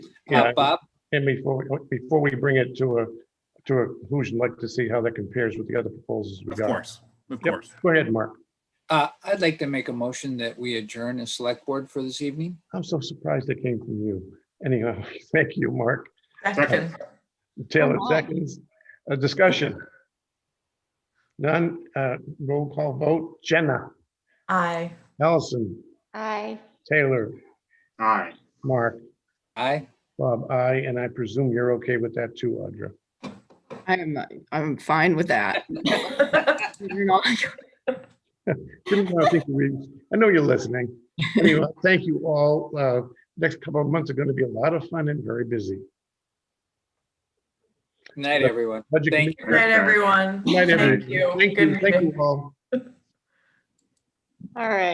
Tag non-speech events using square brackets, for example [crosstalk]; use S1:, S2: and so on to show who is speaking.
S1: Yeah.
S2: Uh, Bob,
S1: And before, we- before we bring it to a, to a conclusion, I'd like to see how that compares with the other proposals we
S3: Of
S1: got.
S3: course, of
S1: Yep.
S3: course.
S1: Go ahead, Mark.
S2: uh, I'd like to make a motion that we adjourn the select board for this evening.
S1: I'm so surprised it came from you. Anyhow, [laughs] thank you, Mark.
S3: Second.
S4: Second,
S1: Taylor
S5: Come on.
S1: seconds. A discussion. None, uh, roll call vote. Jenna,
S4: aye. [laughs]
S1: Allison,
S5: Aye.
S1: Taylor,
S3: Aye.
S1: Mark,
S2: Aye.
S1: Bob, I, and I presume you're okay with that too, Audra.
S5: I'm, I'm fine with that. [laughs] You're not-
S1: Didn't wanna think we- I know you're listening. Anyway, thank you all. Uh, Next couple of months are going to be a lot of fun and very busy.
S2: Good night, everyone.
S1: Budget
S2: Thank
S4: Good night, everyone.
S1: Good night, everyone.
S4: Thank you.
S1: Thank
S4: Good
S1: you, thank
S4: meeting.
S1: you all.
S5: All right.